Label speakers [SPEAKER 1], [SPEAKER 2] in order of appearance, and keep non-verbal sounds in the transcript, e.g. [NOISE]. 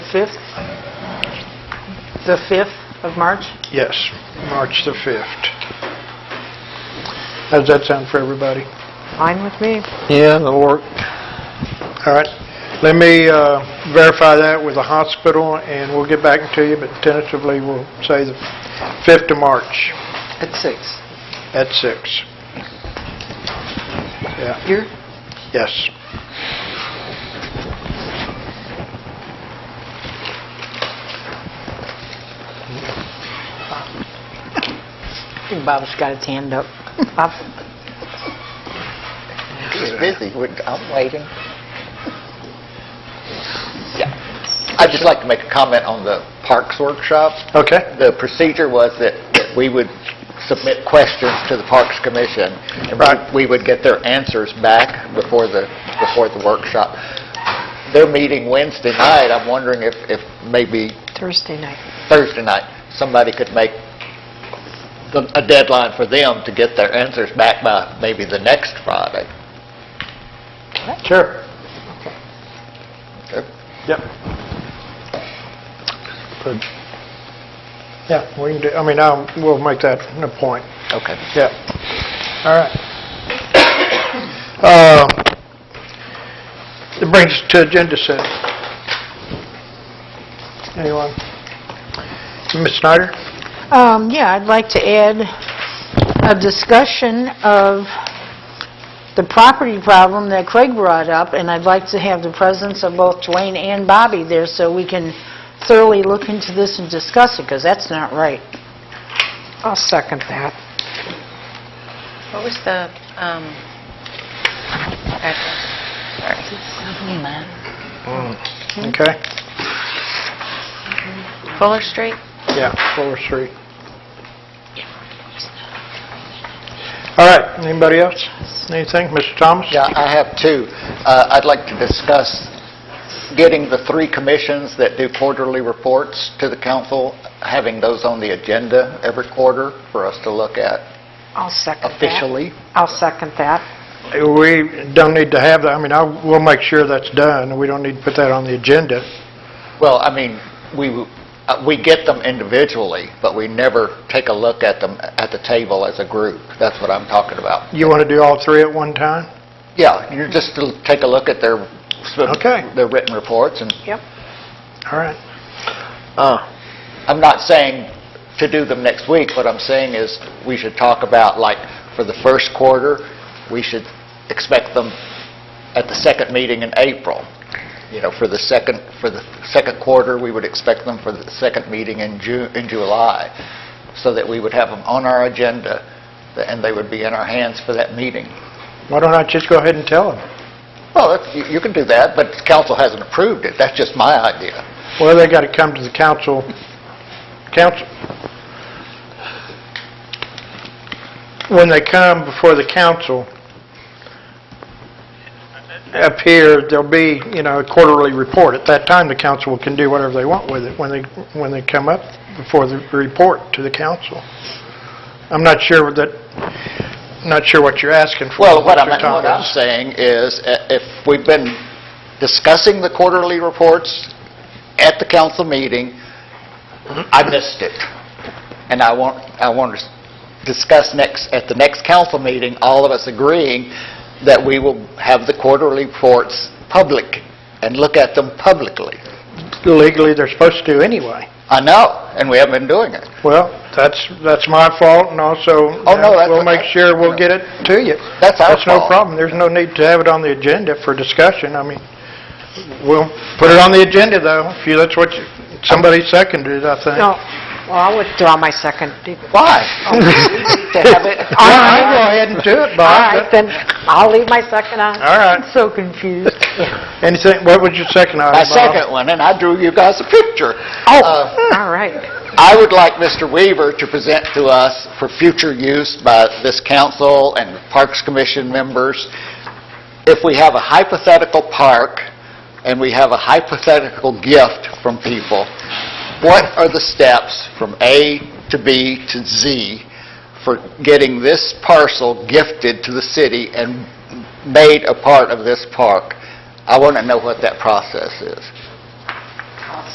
[SPEAKER 1] 5th?
[SPEAKER 2] The 5th of March?
[SPEAKER 1] Yes, March the 5th. How does that sound for everybody?
[SPEAKER 2] Fine with me.
[SPEAKER 1] Yeah, that'll work. All right, let me uh, verify that with the hospital, and we'll get back to you, but tentatively, we'll say the 5th of March
[SPEAKER 3] At six.
[SPEAKER 1] at 6. Yeah,
[SPEAKER 3] Here?
[SPEAKER 1] yes.
[SPEAKER 2] I think Bob's got his hand up. Bob?
[SPEAKER 3] He's busy. We're- I'm waiting. Yeah. I'd just like to make a comment on the parks workshop.
[SPEAKER 1] Okay,
[SPEAKER 3] The procedure was that that we would submit questions to the Parks Commission, and we-
[SPEAKER 1] Right.
[SPEAKER 3] we would get their answers back before the, before the workshop. They're meeting Wednesday night. I'm wondering if, if maybe
[SPEAKER 2] Thursday night.
[SPEAKER 3] Thursday night, somebody could make the- a deadline for them to get their answers back by maybe the next Friday.
[SPEAKER 1] sure,
[SPEAKER 3] Okay.
[SPEAKER 1] yep. Good. Yeah, we can do, I mean, I'll, we'll make that a point.
[SPEAKER 3] Okay.
[SPEAKER 1] Yeah. All right. Uh, It brings us to agenda set. Anyone? Ms. Snyder?
[SPEAKER 2] Um, yeah, I'd like to add a discussion of the property problem that Craig brought up, and I'd like to have the presence of both Dwayne and Bobby there so we can thoroughly look into this and discuss it, because that's not right.
[SPEAKER 4] I'll second that.
[SPEAKER 5] What was the, um, address? Sorry.
[SPEAKER 1] Okay.
[SPEAKER 5] Fuller Street?
[SPEAKER 1] Yeah, Fuller Street. All right, anybody else? Anything? Mr. Thomas?
[SPEAKER 3] Yeah, I have two. Uh, I'd like to discuss getting the three commissions that do quarterly reports to the council, having those on the agenda every quarter for us to look at
[SPEAKER 4] I'll second that.
[SPEAKER 3] officially.
[SPEAKER 4] I'll second that.
[SPEAKER 1] We don't need to have that, I mean, I, we'll make sure that's done, we don't need to put that on the agenda.
[SPEAKER 3] Well, I mean, we, uh, we get them individually, but we never take a look at them at the table as a group. That's what I'm talking about.
[SPEAKER 1] You want to do all three at one time?
[SPEAKER 3] Yeah, you just to take a look at their,
[SPEAKER 1] Okay.
[SPEAKER 3] their written reports, and
[SPEAKER 4] Yep.
[SPEAKER 1] All right.
[SPEAKER 3] I'm not saying to do them next week, what I'm saying is, we should talk about, like, for the first quarter, we should expect them at the second meeting in April. You know, for the second, for the second quarter, we would expect them for the second meeting in Ju, in July, so that we would have them on our agenda, and they would be in our hands for that meeting.
[SPEAKER 1] Why don't I just go ahead and tell them?
[SPEAKER 3] Well, that's- you you can do that, but council hasn't approved it, that's just my idea.
[SPEAKER 1] Well, they got to come to the council, council. When they come before the council, up here, there'll be, you know, a quarterly report. At that time, the council can do whatever they want with it when they, when they come up before the report to the council. I'm not sure that, not sure what you're asking for.
[SPEAKER 3] Well, what I'm,
[SPEAKER 1] Mr.
[SPEAKER 3] what I'm
[SPEAKER 1] Thomas.
[SPEAKER 3] saying is, uh, if we've been discussing the quarterly reports at the council meeting, I missed it. And I want, I want to discuss next, at the next council meeting, all of us agreeing that we will have the quarterly reports public and look at them publicly.
[SPEAKER 1] Legally, they're supposed to anyway.
[SPEAKER 3] I know, and we haven't been doing it.
[SPEAKER 1] Well, that's, that's my fault, and also,
[SPEAKER 3] Oh, no, that's-
[SPEAKER 1] we'll make sure we'll get it to you.
[SPEAKER 3] That's our
[SPEAKER 1] That's no
[SPEAKER 3] fault.
[SPEAKER 1] problem, there's no need to have it on the agenda for discussion, I mean, we'll put it on the agenda, though, if you, that's what, you- somebody seconded, it, I think.
[SPEAKER 4] No, well, I'll withdraw my second. To
[SPEAKER 1] [LAUGHS]
[SPEAKER 3] Why? [LAUGHS]
[SPEAKER 4] have it.
[SPEAKER 1] All right, go ahead and do it,
[SPEAKER 4] All
[SPEAKER 1] Bob.
[SPEAKER 4] right, then, I'll leave my second on.
[SPEAKER 1] All right,
[SPEAKER 2] So confused.
[SPEAKER 1] [LAUGHS] anything, what was your second item,
[SPEAKER 3] My
[SPEAKER 1] Bob?
[SPEAKER 3] second one, and I drew you guys a picture.
[SPEAKER 1] Oh.
[SPEAKER 3] Uh,
[SPEAKER 4] All right.
[SPEAKER 3] I would like Mr. Weaver to present to us for future use by this council and Parks Commission members, if we have a hypothetical park and we have a hypothetical gift from people, what are the steps from A to B to Z for getting this parcel gifted to the city and made a part of this park? I want to know what that process is.